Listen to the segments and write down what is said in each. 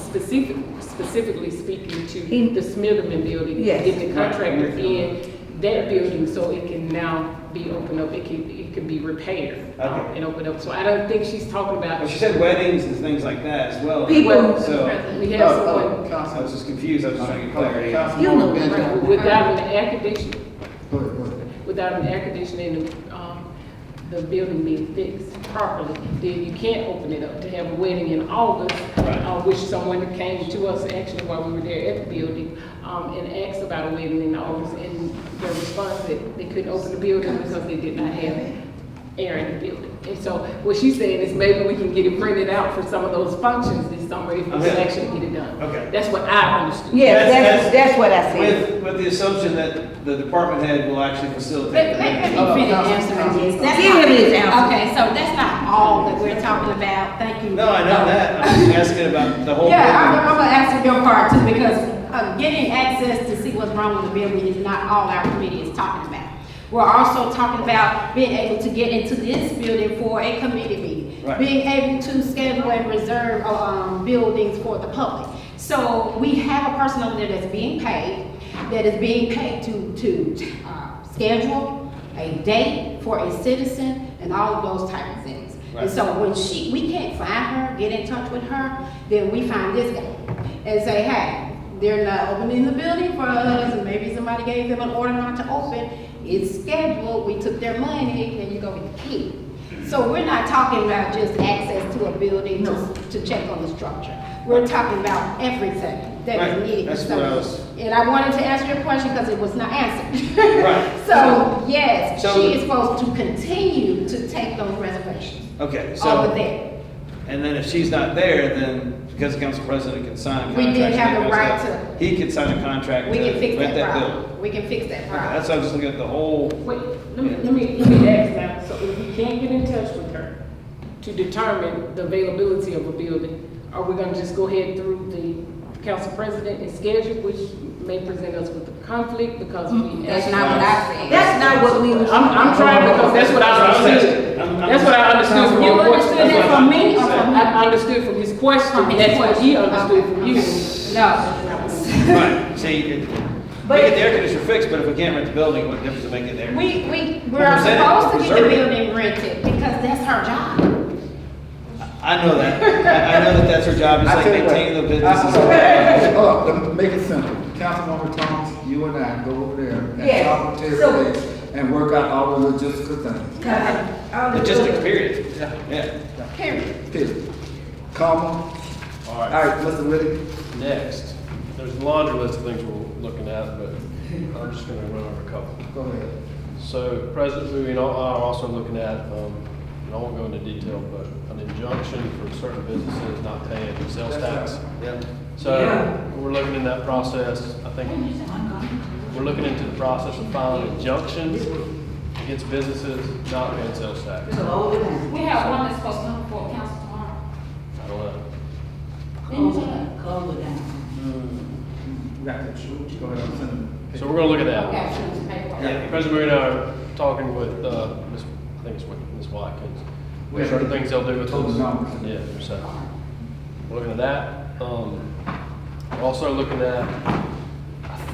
specific, specifically speaking to In- the Smitherman building. Yes. Getting the contractor in that building so it can now be opened up, it can, it can be repaired. um, Okay. And opened up, so I don't think she's talking about. But she said weddings and things like that as well. People- Well, So- We have Oh, someone. oh, I was just confused, I was just trying to get clarity. You know Right, better. Without an air conditioner, Go ahead, go ahead. without an air conditioner and the, um, the building being fixed properly, then you can't open it up to have a wedding in August. Right. Uh, which someone came to us actually while we were there at the building, um, and asked about a wedding in August, and their response that they couldn't open the building because they did not have air in the building. And so what she's saying is maybe we can get it printed out for some of those functions this summer if we can Okay. actually get it done. Okay. That's what I understood. Yes, that's, that's what I said. With, with the assumption that the department head will actually facilitate. Let, the let, let meeting. me finish answering this. That's Give not- him his answer. Okay, so that's not all that we're talking about, thank you. Oh. No, I know that, I'm just asking about the whole. Yeah, I'm, building. I'm gonna answer your part too, because, uh, getting access to see what's wrong with the building is not all our committee is talking about. We're also talking about being able to get into this building for a committee meeting. Right. Being able to schedule and reserve, um, buildings for the public. So we have a person over there that's being paid, that is being paid to, to, uh, schedule a date for a citizen and all of those type of things. Right. And so so when she, we can't find her, get in touch with her, then we find this guy and say, hey, they're not opening the building for us, and maybe somebody gave them an order not to open. It's scheduled, we took their money, and you go with the key. So we're not talking about just access to a building to, to check on the structure. We're talking about everything that Right, is needed. that's So- what I was- And I wanted to answer your question because it was not answered. Right. So, yes, So- she is supposed to continue to take those reservations Okay, over so, there. and then if she's not there, then because the council president can sign a We contract. did have the she knows right that, He could sign a contract We to can fix rent that that building. problem. We can fix that Okay, problem. That's why I was just looking at the whole, Wait, let me, let me, let me ask now, so if we can't get in touch with her to determine the availability of a building, are we gonna just go ahead through the council president and schedule, which may present us with a conflict because we. Mm-hmm. That's not what I said. That's not what we was. I'm, I'm trying because that's what I That's what I was understood. asking. I'm- I'm- That's what I understood from your You question. understood that from me or from him? I understood from his From question, his that's what he question. understood Okay. from you. No. right, see, it- we But- get the air conditioner fixed, but if we can't rent the building, what difference does it make in there? We, we, we're Well, present it, supposed to get the preserve it. building rented because that's her job. I know that. I, I know that that's her job, just I like tell you what. maintaining the I- business. I- Hold up, let me make it simple. Councilwoman Thomas, you and I go over there and Yes. talk to So- everybody and work out all the logistical things. Logistics, period. Yeah. Period. Period. Comma. All All right, right, Mr. Whitaker. next, there's a laundry list of things we're looking at, but I'm just gonna run over a couple. Go ahead. So President Bowie and I are also looking at, um, and I won't go into detail, but an injunction for certain businesses not paying sales tax. Yeah. So we're looking in that process, I think, we're looking into the process of filing injunctions against businesses not paying sales tax. We have one that's supposed to come before council tomorrow. I don't know. Didn't you say that? We got that shoot. Go ahead, I'm sending. So we're gonna look at that. Okay, so it's paperwork. Yeah, President Bowie and I are talking with, uh, Ms., I think it's with Ms. Watkins. What sort of things they'll do with Total those? numbers. Yeah, so, we're looking at that. Um, we're also looking at,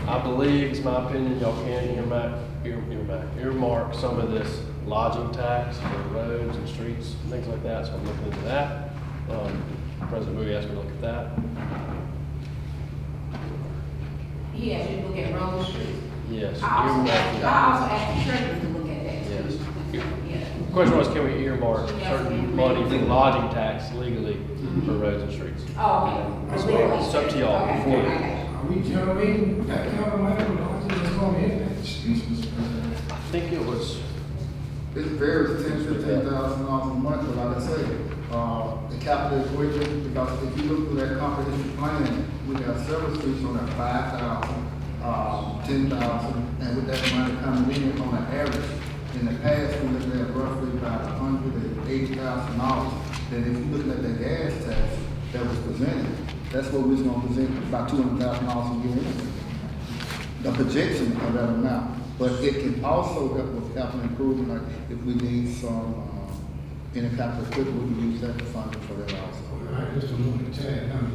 I believe, it's my opinion, y'all can earmark, ear- earmark, earmark some of this lodging tax for roads and streets, and things like that, so I'm looking into that. Um, President Bowie asked me to look at that. He asked you to look at Rose Street. Yes. I also asked, earmark. I also asked the treasurer to look at that too. Yeah. Question was, can we earmark certain money for lodging tax legally for roads and streets? Oh, okay. It's up to y'all Okay, before you- okay. Are we generating that kind of money with all this going in? Excuse me, Mr. President. I think it was, It varies ten, fifteen thousand dollars a month, but like I say, uh, the capital equipment, because if you look through that comprehensive plan, we got several streets on that five thousand, uh, ten thousand, and with that amount of coming in on an average, in the past, we looked at roughly about a hundred and eighty thousand dollars. Then if you look at the gas tax that was presented, that's what we was gonna present, about two hundred thousand dollars a year anyway the projection of that amount, but it can also help with capital improvement, like if we need some, uh, in a capital equipment, we can use that to fund it for that also. All right, just a moment, Chad, I'm